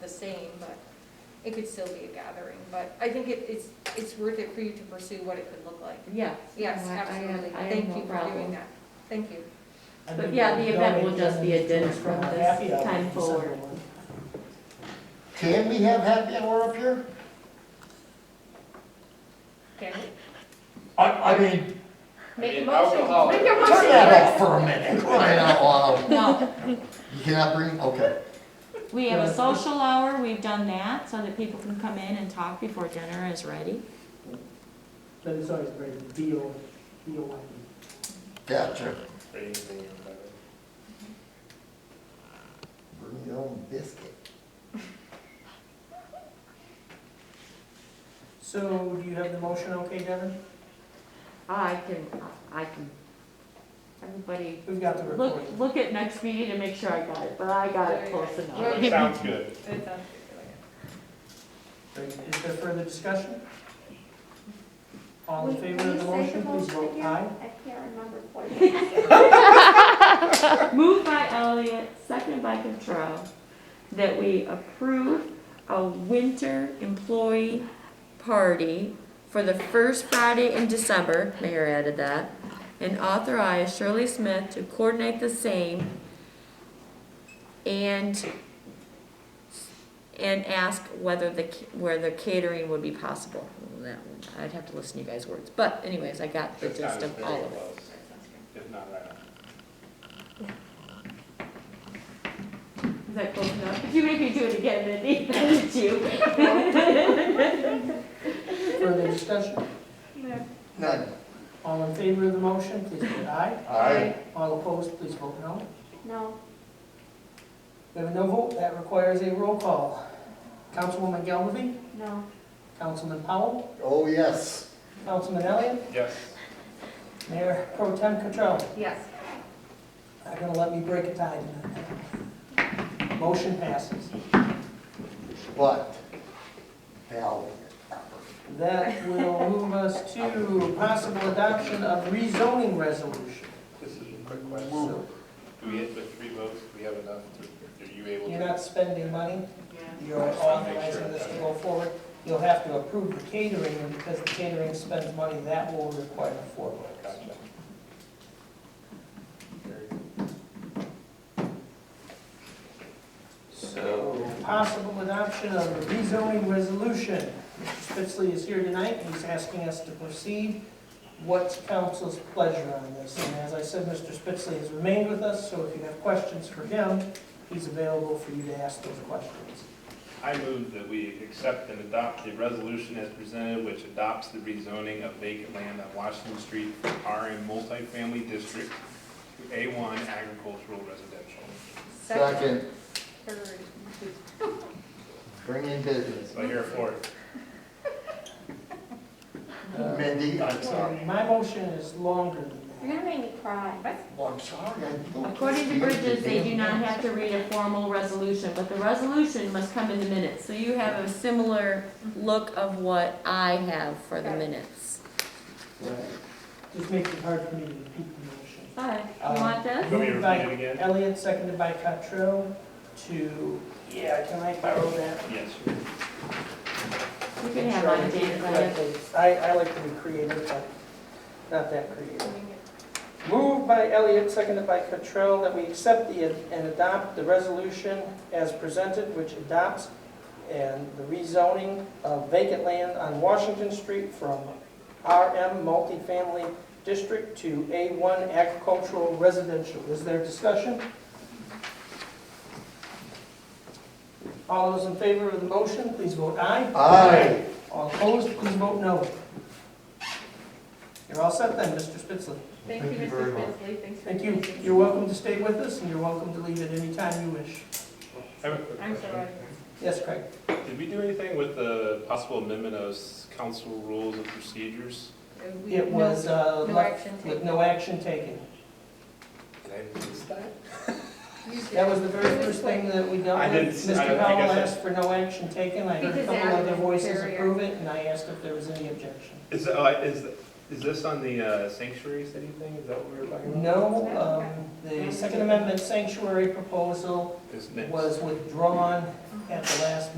the same, but it could still be a gathering. But I think it, it's, it's worth it for you to pursue what it could look like. Yes. Yes, No, I- I have- absolutely. I have Thank no you for problem. doing that. Thank you. But yeah, the event will just be a dinner from this time forward. Can we have happy hour up here? Okay. I, I mean, Make a mean, motion. alcohol- Make a turn motion. that off for a minute, crying out loud. No, You cannot bring, okay. we have a social hour, we've done that, so that people can come in and talk before dinner is ready. But it's always very B O, B O Y E. Gotcha. Anything about it. Bring your own biscuit. So do you have the motion okay, Devin? Ah, I can, I can, everybody, We've got the look, recording. look at next meeting to make sure I got it, but I got it close enough. Right. Sounds good. That sounds good. Is there further discussion? All in favor of the motion, please vote aye. I can't remember what it Moved by Elliot, second by Control, that we approve a winter employee party for the first Friday in December, Mayor added that, and authorize Shirley Smith to coordinate the same and, and ask whether the, ca- where the catering would be possible. That one, I'd have to listen to you guys' words, but anyways, I got the That gist sounds of very all of it. close, if not right on. Is that close enough? If you make me do it again, then it's you. Further discussion? None. All in favor of the motion, please vote aye. Aye. All opposed, please vote no. No, We have a no vote, that requires a roll call. Councilwoman Galvin, no, Councilman Powell, Oh, yes. Councilman Elliott, Yes, Mayor Pro Tem Cottrell. Yes. Not gonna let me break a tie tonight. Motion passes. But, Val, That will move us to possible adoption of rezoning resolution. this is a quick question. So Do we hit with three votes? Do we have enough? to- Are you able You're to? not spending money, you're authorizing this to go forward. You'll have to approve the catering, and because the catering spends money, that will require four votes. Gotcha. So possible adoption of a rezoning resolution. Mr. Spitzley is here tonight, he's asking us to proceed. What's council's pleasure on this? And as I said, Mr. Spitzley has remained with us, so if you have questions for him, he's available for you to ask those questions. I move that we accept and adopt the resolution as presented, which adopts the rezoning of vacant land on Washington Street from RM multifamily district to A1 agricultural residential. second, Third. bring in business. So I hear a fourth. Uh, Mindy, I'm sorry. and My motion is longer than you're that. gonna make me cry. Well, I'm sorry. I don't- According to Bridges, they do not have to read a formal resolution, but the resolution must come in the minutes. So you have a similar look of what I have for the minutes. Just makes it hard for me to repeat the Hi, you want this? Go here, motion. By read it again. Elliot, seconded by Cottrell, to, yeah, can I borrow that? Yes. You can have mine, Janet, I have- I, I like to be creative, but not that creative. Moved by Elliott, seconded by Cottrell, that we accept the, and adopt the resolution as presented, which adopts and the rezoning of vacant land on Washington Street from RM multifamily district to A1 agricultural residential. Is there discussion? All those in favor of the motion, please vote aye. Aye. All opposed, please vote no. You're all set then, Mr. Spitzley. Thank you, Thank you very Mr. much. Spensley. Thanks for. Thank you. coming. You're welcome to stay with us, and you're welcome to leave at any time you wish. I have a quick I'm question. sorry. Yes, Craig? Did we do anything with the possible amendment of s- council rules and procedures? Uh, we- It was uh, No left action with taken. no action taken. Did I miss that? You did. That was the very first thing that we dealt I with. didn't- I- I Mr. guess Powell I- asked for no action taken. I heard a Because couple Adam other voices Carrier. approve it, and I asked if there was any objection. Is, uh, is, Is this on the uh, sanctuary city thing? Is that what we were talking about? No, um, the Second Amendment sanctuary proposal This next. was withdrawn at the last